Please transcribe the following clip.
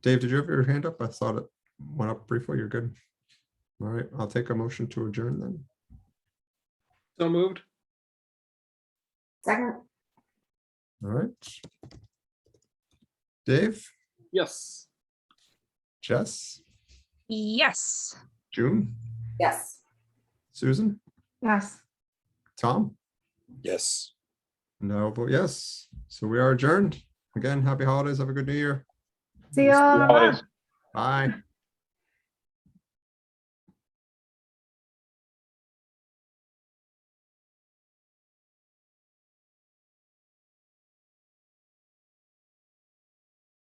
Dave, did you have your hand up? I thought it went up briefly. You're good. All right, I'll take a motion to adjourn then. So moved. Second, All right. Dave, Yes. Jess, Yes. June, yes. Susan, Yes. Tom, Yes. no, but yes. So we are adjourned. Again, happy holidays. Have a good new year. See you Holidays. Bye.